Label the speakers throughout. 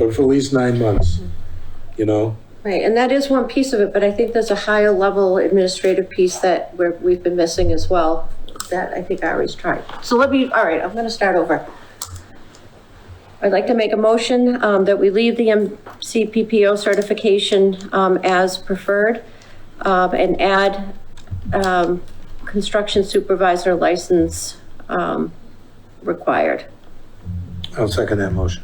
Speaker 1: but for at least nine months, you know?
Speaker 2: Right, and that is one piece of it, but I think there's a higher level administrative piece that we're, we've been missing as well, that I think Ari's trying. So let me, all right, I'm gonna start over. I'd like to make a motion, um, that we leave the MCPPO certification, um, as preferred, um, and add, um, construction supervisor license, um, required.
Speaker 1: I'll second that motion.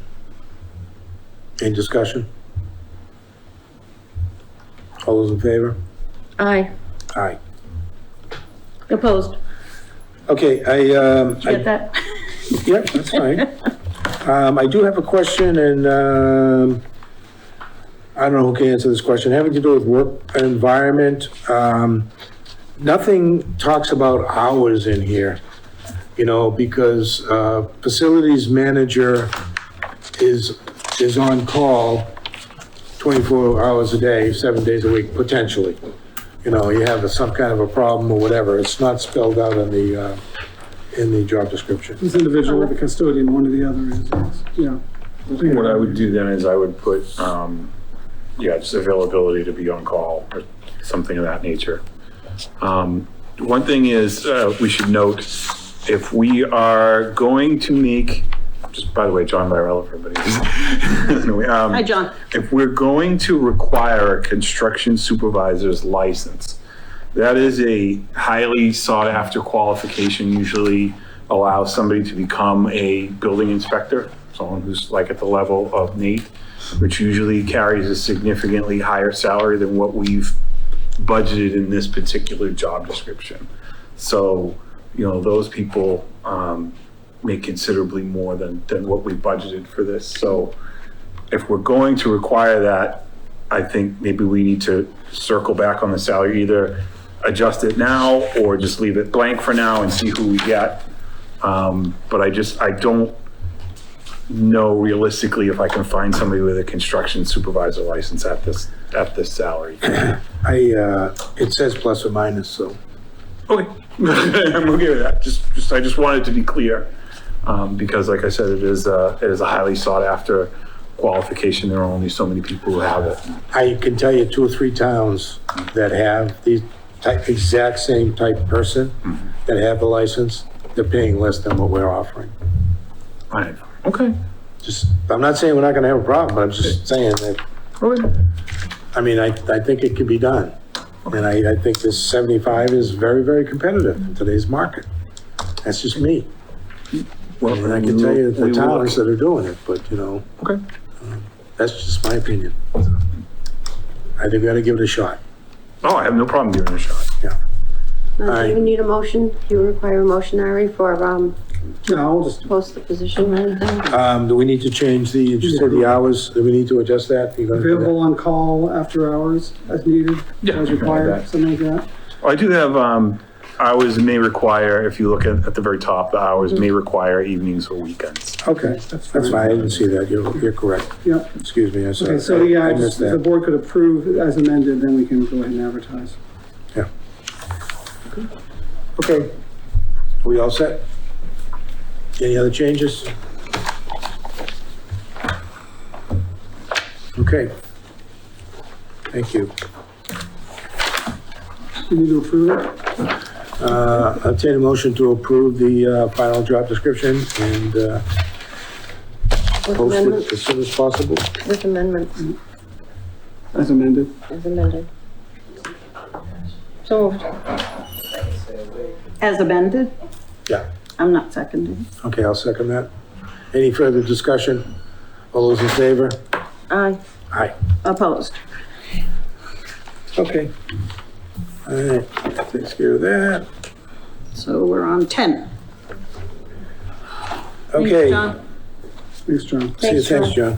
Speaker 1: Any discussion? All those in favor?
Speaker 2: Aye.
Speaker 1: Aye.
Speaker 2: Opposed?
Speaker 1: Okay, I, um, I
Speaker 2: Get that?
Speaker 1: Yep, that's fine. Um, I do have a question and, um, I don't know who can answer this question, having to do with work environment. Um, nothing talks about hours in here, you know, because, uh, facilities manager is, is on call twenty-four hours a day, seven days a week, potentially. You know, you have some kind of a problem or whatever, it's not spelled out in the, uh, in the job description.
Speaker 3: It's individual, the custodian, one or the other is, yeah.
Speaker 4: What I would do then is I would put, um, yeah, just availability to be on call or something of that nature. Um, one thing is, uh, we should note, if we are going to make, just by the way, John Varela for everybody. Hi,
Speaker 2: John.
Speaker 4: um, If we're going to require a construction supervisor's license, that is a highly sought after qualification, usually allows somebody to become a building inspector, someone who's like at the level of Nate, which usually carries a significantly higher salary than what we've budgeted in this particular job description. So, you know, those people um, make considerably more than, than what we budgeted for this. So if we're going to require that, I think maybe we need to circle back on the salary, either adjust it now or just leave it blank for now and see who we get. Um, But I just, I don't know realistically if I can find somebody with a construction supervisor license at this, at this salary.
Speaker 1: I, uh, it says plus or minus, so.
Speaker 4: Okay, I'm okay with that. Just, just, I just wanted to be clear, um, because like I said, it is, uh, it is a highly sought after qualification. There are only so many people who have it.
Speaker 1: I can tell you two or three towns that have the type, exact same type person that have the license, they're paying less than what we're offering.
Speaker 4: Right, okay,
Speaker 1: Just, I'm not saying we're not gonna have a problem, but I'm just saying that,
Speaker 4: okay.
Speaker 1: I mean, I, I think it can be done. And I, I think this 75 is very, very competitive in today's market. That's just me.
Speaker 4: Well,
Speaker 1: And I can tell you the towns that are doing it, but, you know,
Speaker 4: Okay,
Speaker 1: that's just my opinion. I think we gotta give it a shot,
Speaker 4: oh, I have no problem giving it a shot.
Speaker 1: yeah.
Speaker 2: Now, Um, do
Speaker 1: Aye.
Speaker 2: you need a motion? Do you require a motion, Ari, for, um,
Speaker 3: No, I'll just,
Speaker 2: post the position or anything?
Speaker 1: Um, do we need to change the, you said the hours, do we need to adjust that? You're gonna do that?
Speaker 3: available on call after hours as needed,
Speaker 4: Yeah,
Speaker 3: as
Speaker 4: something like
Speaker 3: required,
Speaker 4: that.
Speaker 3: something like that.
Speaker 4: I do have, um, hours may require, if you look at, at the very top, the hours may require evenings or weekends.
Speaker 1: Okay,
Speaker 3: That's
Speaker 1: that's fine, I didn't see that, you're, you're correct,
Speaker 3: Yeah,
Speaker 1: excuse me, I saw.
Speaker 3: okay, so yeah,
Speaker 1: I
Speaker 3: if
Speaker 1: missed
Speaker 3: the
Speaker 1: that.
Speaker 3: board could approve as amended, then we can go ahead and advertise.
Speaker 1: Okay, we all set? Any other changes? Okay. Thank you.
Speaker 3: You need to approve it?
Speaker 1: Uh, I'll take a motion to approve the, uh, final job description and, uh,
Speaker 2: With
Speaker 1: post it
Speaker 2: amendment,
Speaker 1: as soon as possible.
Speaker 2: with amendment,
Speaker 3: As amended.
Speaker 2: as amended. So moved.
Speaker 5: As amended?
Speaker 1: Yeah.
Speaker 5: I'm not seconding.
Speaker 1: Okay, I'll second that. Any further discussion? All those in favor?
Speaker 2: Aye.
Speaker 1: Aye.
Speaker 5: Opposed?
Speaker 1: Okay. All right, takes care of that.
Speaker 5: So we're on 10.
Speaker 1: Okay.
Speaker 2: John?
Speaker 3: Thanks, John.
Speaker 1: See you, thanks, John.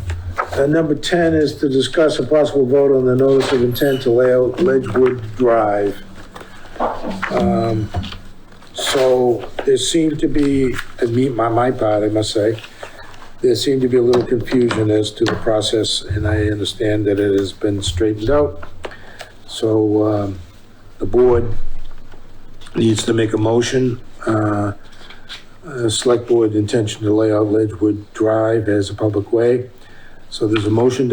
Speaker 1: Uh, number 10 is to discuss a possible vote on the notice of intent to lay out Ledgewood Drive. Um, So there seemed to be, to meet my, my part, I must say, there seemed to be a little confusion as to the process, and I understand that it has been straightened out. So, um, the board needs to make a motion, uh, uh, Select Board intention to lay out Ledgewood Drive as a public way. So there's a motion